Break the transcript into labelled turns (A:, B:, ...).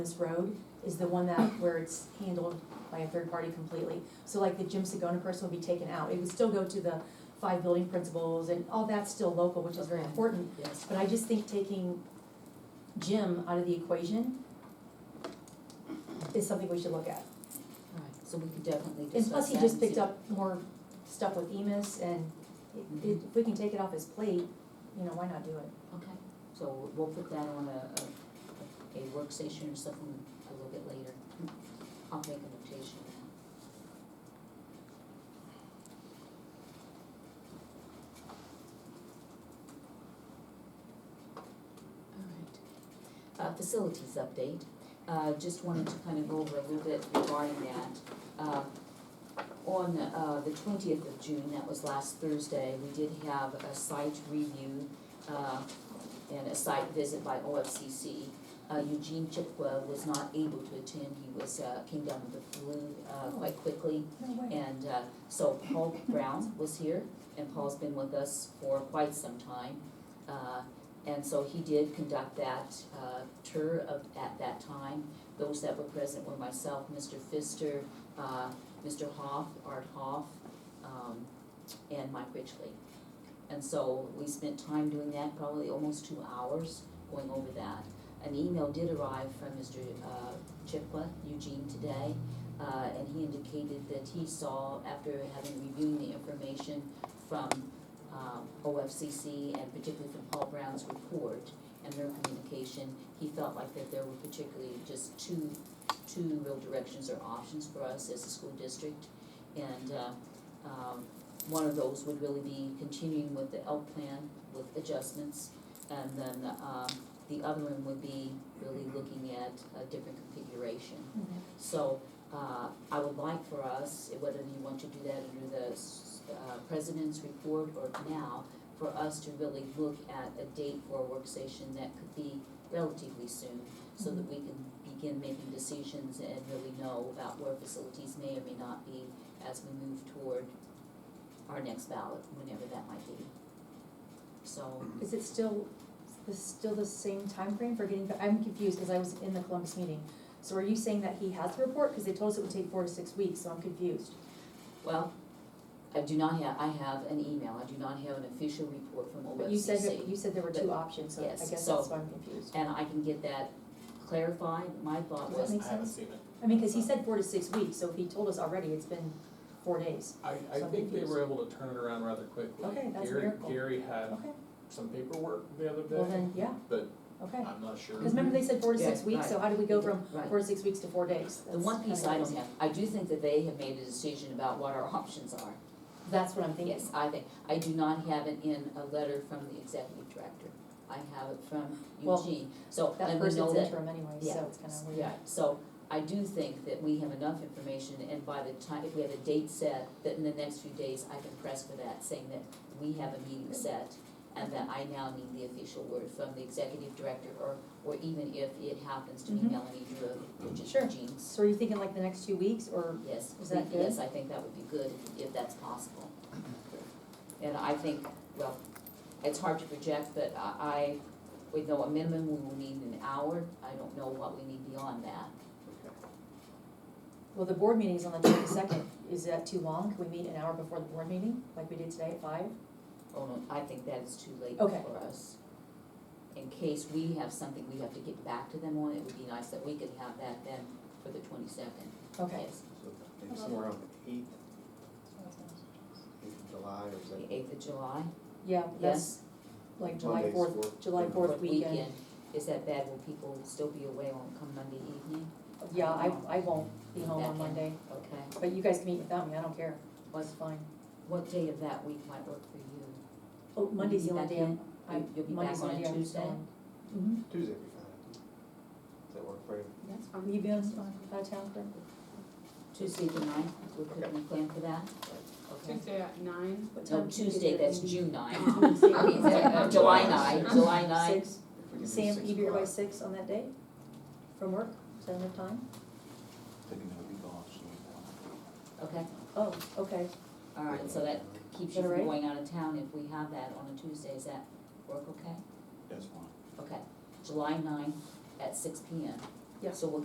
A: this road is the one that, where it's handled by a third party completely. So like the Jim Segona person would be taken out, it would still go to the five building principals and all that's still local, which is very
B: Okay.
A: important.
B: Yes.
A: But I just think taking Jim out of the equation is something we should look at.
B: Alright, so we could definitely discuss
A: And plus, he
B: that
A: just
B: and see.
A: picked up more stuff with Emus and it- it- if we can take it off his plate, you know, why not do it?
B: Okay, so we'll put that on a, a, a work station or something a little bit later. I'll make a notation of that. Alright. Uh, facilities update, uh, just wanted to kind of go over a little bit regarding that. Uh, on, uh, the twentieth of June, that was last Thursday, we did have a site review, uh, and a site visit by OFCC. Uh, Eugene Chipwa was not able to attend, he was, uh, came down with the flu, uh, quite quickly.
A: No way.
B: And uh, so Paul Brown was here, and Paul's been with us for quite some time. Uh, And so he did conduct that uh, tour of, at that time. Those that were present were myself, Mr. Pfister, uh, Mr. Hoff, Art Hoff, um, and Mike Richley. And so we spent time doing that, probably almost two hours going over that. An email did arrive from Mr. uh, Chipwa, Eugene, today, uh, and he indicated that he saw, after having reviewed the information from, um, OFCC and particularly from Paul Brown's report and their communication, he felt like that there were particularly just two, two real directions or options for us as a school district. And, uh, um, one of those would really be continuing with the L plan with adjustments. And then, um, the other one would be really looking at a different configuration.
A: Okay.
B: So, uh, I would like for us, whether you want to do that under the, s- uh, president's report or now, for us to really look at a date for a work session that could be relatively soon, so
A: Mm-hmm.
B: that we can begin making decisions and really know about where facilities may or may not be as we move toward our next ballot, whenever that might be. So,
A: Is it still, is still the same time frame for getting, back? I'm confused, because I was in the Columbus meeting. So are you saying that he has the report? Because they told us it would take four to six weeks, so I'm confused.
B: well, I do not have, I have an email, I do not have an official report from OFCC.
A: But you said, that- you said there were two
B: But-
A: options, so I
B: yes,
A: guess
B: so-
A: that's why I'm confused.
B: and I can get that clarified, my thought
A: Does that
B: was,
A: make
C: I haven't
A: sense?
C: seen it.
A: I mean, because he said four to six weeks, so if he told us already, it's been four days.
C: I, I
A: So I'm
C: think they were
A: confused.
C: able to turn it around rather quickly.
A: Okay, that's a
C: Gary-
A: miracle.
C: Gary had
A: Okay,
C: some paperwork the other
A: well
C: day,
A: then, yeah,
C: but
A: okay.
C: I'm not sure.
A: Because remember they said four to six
B: Yeah,
A: weeks, so how did we go from
B: right,
A: four to six weeks to four days?
B: the one
A: That's
B: piece I
A: kinda
B: don't have, I do think that they have made a decision about what our options are.
A: crazy. That's what I'm thinking.
B: Yes, I think, I do not have it in a letter from the executive director, I have it from
A: Well,
B: Eugene, so let me
A: That
B: know
A: person's
B: that-
A: interim anyway,
B: yeah,
A: so it's kind of weird.
B: Yeah, so I do think that we have enough information and by the time, if we have a date set, that in the next few days I can press for that, saying that we have a meeting set and that I now need the official word from the executive director or, or even if it happens to be
A: Mhm.
B: Melanie Drew, which is
A: Sure.
B: Eugene's.
A: So are you thinking like the next two weeks, or
B: Yes,
A: Is that
B: yes, I think that would be good if, if that's possible. And I think, well, it's hard to project, but I, I, we know a minimum we will need an hour, I don't know what we need beyond that.
A: Well, the board meeting is on the twenty-second, is that too long? Can we meet an hour before the board meeting, like we did today at five?
B: Oh, no, I think that is too late
A: Okay.
B: for us. In case we have something we have to get back to them on, it would be nice that we could have that then for the twenty-second,
A: Okay.
B: yes,
D: So Maybe somewhere around the eighth, eighth of July or is
B: the
D: that?
B: eighth of July,
A: Yeah, that's
B: yes?
A: like July
D: Monday's
A: fourth, July fourth
B: Fourth
A: weekend.
B: Is that bad, will people still be away on come Monday evening?
A: Yeah, I, I won't be home
B: Back
A: on
B: in.
A: Monday,
B: Okay,
A: but you guys can meet without me, I don't care, it's
B: what,
A: fine.
B: what day of that week might work for you?
A: Oh, Monday's
B: be
A: the only
B: back
A: day
B: in?
A: I'm, I,
B: You- you'll be
A: Monday's
B: back
A: the
B: on
A: only
B: a
A: day I'm
B: Tuesday?
A: gone. Mm-hmm,
D: Tuesday would be fine. Does that work for you?
B: That's
A: will you be on, out of town for,
B: Tuesday the ninth, we could we plan for that? Okay.
E: Tuesday at nine.
A: what time?
B: No, Tuesday, that's June ninth.
E: Tuesday.
B: I mean, uh, July ninth, July ninth.
A: Six,
D: If we can do
A: Sam,
D: six
A: you be here by
D: o'clock.
A: six on that day, from work, is that enough time?
B: Okay,
A: Oh, okay,
B: all right, so that keeps you
A: Is that all
B: from
A: right?
B: going out of town if we have that on a Tuesday, is that work okay?
D: That's fine.
B: Okay, July ninth at six P M.
A: Yeah.
B: So we'll